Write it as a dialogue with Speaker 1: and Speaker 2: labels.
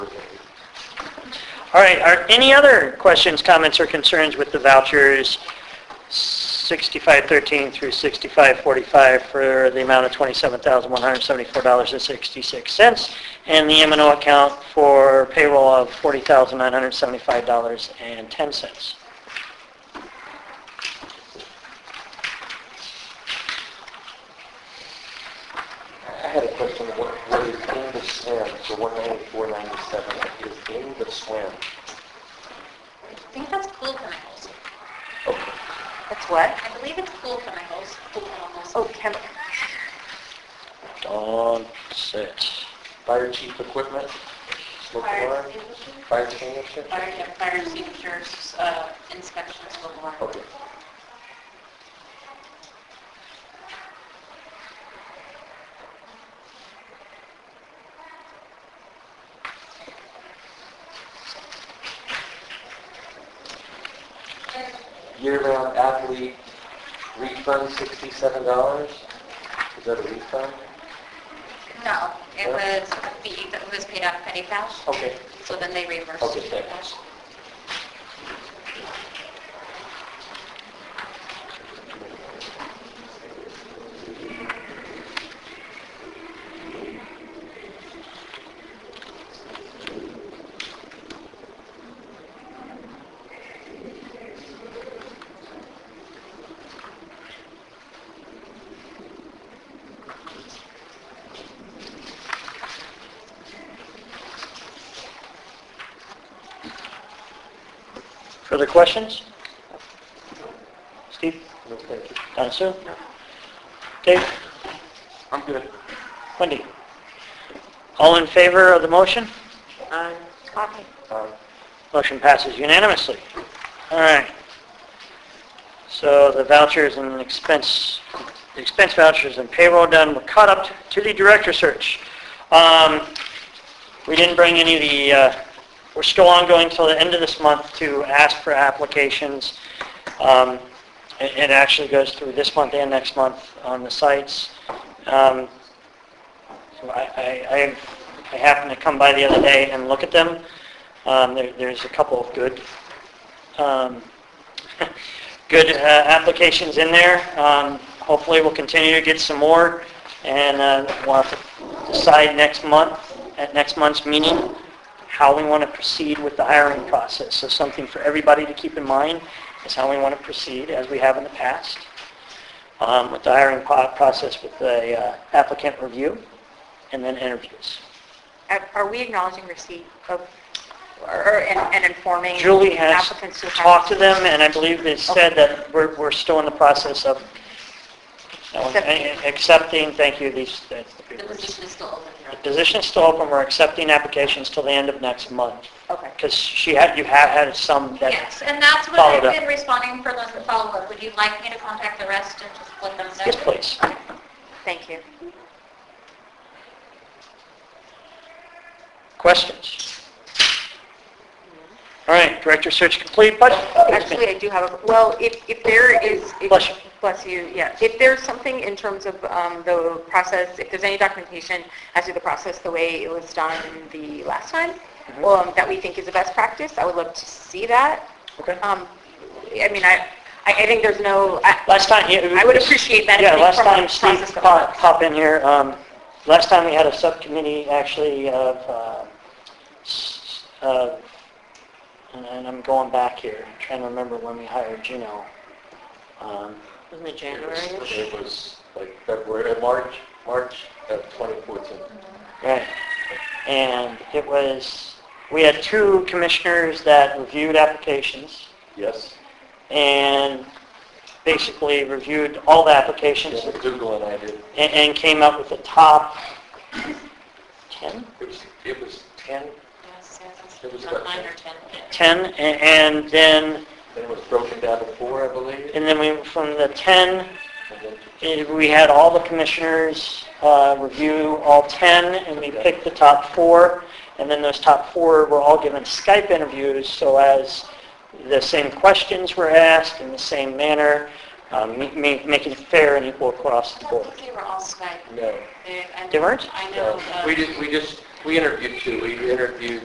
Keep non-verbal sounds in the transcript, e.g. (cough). Speaker 1: All right, are any other questions, comments, or concerns with the vouchers 6513 through 6545 for the amount of $27,174.66 and the m and O account for payroll of $40,975.10?
Speaker 2: I had a question, what, what is in the swim, the one ninety-four ninety-seven, is in the swim?
Speaker 3: I think that's cool chemicals.
Speaker 2: Okay.
Speaker 4: That's what?
Speaker 3: I believe it's cool chemicals. Cool chemicals.
Speaker 4: Oh, chem,
Speaker 1: Don't sit.
Speaker 2: Fire chief equipment, smoke
Speaker 3: Fire
Speaker 2: alarm,
Speaker 3: extinguishers.
Speaker 2: fire extinguisher?
Speaker 3: Fire, yeah, fire extinguishers, uh, inspections, blah, blah, blah.
Speaker 2: Okay. Year-round athlete refund sixty-seven dollars? Is that a refund?
Speaker 3: No, it was a fee that was paid out of petty cash,
Speaker 1: Oh.
Speaker 2: Okay.
Speaker 3: so then they reversed
Speaker 2: Okay,
Speaker 3: it to
Speaker 2: thank you.
Speaker 3: cash.
Speaker 1: Further questions? Steve?
Speaker 2: No, thank you.
Speaker 1: Donna Sue? Dave?
Speaker 2: I'm good.
Speaker 1: Wendy? All in favor of the motion?
Speaker 4: okay.
Speaker 2: Um,
Speaker 1: Motion passes unanimously. All right. So the vouchers and expense, the expense vouchers and payroll done, we're caught up to the director search. Um, We didn't bring any of the, uh, we're still ongoing till the end of this month to ask for applications. Um, It it actually goes through this month and next month on the sites. Um, so I, I, I- I happened to come by the other day and look at them. Um, there, there's a couple of good, um, (laughs) good uh, applications in there. Um, hopefully we'll continue to get some more and uh, we'll have to decide next month, at next month's meeting, how we want to proceed with the hiring process. So something for everybody to keep in mind is how we want to proceed as we have in the past um, with the hiring po- process with the uh, applicant review and then interviews.
Speaker 4: Are- Are we acknowledging receipt of, or- or, and and informing
Speaker 1: Julie has
Speaker 4: applicants who have...
Speaker 1: talked to them, and I believe they said that we're, we're still in the process of no,
Speaker 4: Accepting.
Speaker 1: accepting, thank you, these, that's the
Speaker 3: The
Speaker 1: big words.
Speaker 3: position is still open.
Speaker 1: The position is still open, we're accepting applications till the end of next month,
Speaker 4: Okay.
Speaker 1: because she had, you have had some that,
Speaker 3: Yes, and that's what
Speaker 1: Followed
Speaker 3: I've
Speaker 1: up.
Speaker 3: been responding for those that follow up. Would you like me to contact the rest and just let them know?
Speaker 1: yes, please.
Speaker 4: Thank you.
Speaker 1: Questions? All right, director search complete, budget.
Speaker 4: Actually, I do have, a well, if, if there is... if-
Speaker 1: Bless you.
Speaker 4: Bless you, yeah. If there's something in terms of um, the process, if there's any documentation as to the process, the way it was done the last time,
Speaker 1: Mm-hmm.
Speaker 4: um, that we think is the best practice, I would love to see that.
Speaker 1: Okay.
Speaker 4: Um, I mean, I, I I think there's no, I-
Speaker 1: Last time, yeah. it
Speaker 4: I would
Speaker 1: was-
Speaker 4: appreciate that if
Speaker 1: Yeah,
Speaker 4: they
Speaker 1: last
Speaker 4: promote
Speaker 1: time Steve
Speaker 4: process of
Speaker 1: pop
Speaker 4: work.
Speaker 1: pop in here, um, last time we had a subcommittee actually of, uh, s- uh, and and I'm going back here, I'm trying to remember when we hired Gino. Um,
Speaker 4: Wasn't it
Speaker 2: It was- it was like February, uh, March, March of 2014.
Speaker 1: Right. And it was, we had two commissioners that reviewed applications
Speaker 2: Yes?
Speaker 1: and basically reviewed all the applications
Speaker 2: Yeah, Dougal and I did.
Speaker 1: and- and came up with the top 10?
Speaker 2: It was, it was 10,
Speaker 3: Yes, yes,
Speaker 2: It was
Speaker 3: yes.
Speaker 2: about
Speaker 3: Nine
Speaker 2: ten.
Speaker 3: or 10.
Speaker 1: 10, a- and then,
Speaker 2: then it was broken down to four, I believe.
Speaker 1: and then we, from the 10,
Speaker 2: And then
Speaker 1: eh, we had all the commissioners uh, review all 10, and we picked the top four, and then those top four were all given Skype interviews, so as the same questions were asked in the same manner, um, ma- ma- making it fair and equal across the
Speaker 3: I don't
Speaker 1: board.
Speaker 3: think they were all Skype.
Speaker 2: No,
Speaker 3: They- I
Speaker 1: They weren't?
Speaker 3: know- I know.
Speaker 2: no.
Speaker 3: uh,
Speaker 2: We just, we just, we interviewed two. We interviewed